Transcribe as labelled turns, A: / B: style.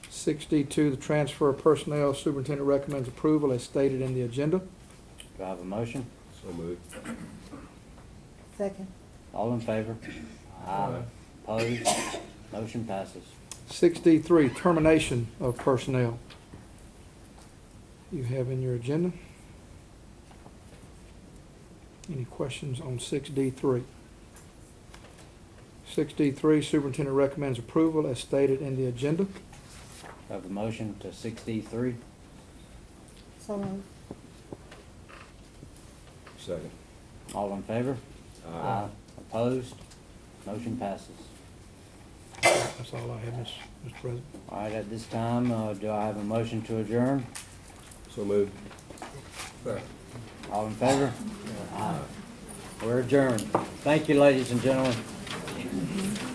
A: Sixty-two, the transfer of personnel, superintendent recommends approval as stated in the agenda.
B: Do I have a motion?
C: So moved.
D: Second.
B: All in favor? Aye. Opposed? Motion passes.
A: Sixty-three, termination of personnel. You have in your agenda. Any questions on six D three? Six D three, superintendent recommends approval as stated in the agenda.
B: Do I have a motion to six D three?
D: So moved.
C: Second.
B: All in favor? Opposed? Motion passes.
A: That's all I have, Ms. Mr. President.
B: All right, at this time, uh, do I have a motion to adjourn?
C: So moved. Second.
B: All in favor? Aye. We're adjourned. Thank you, ladies and gentlemen.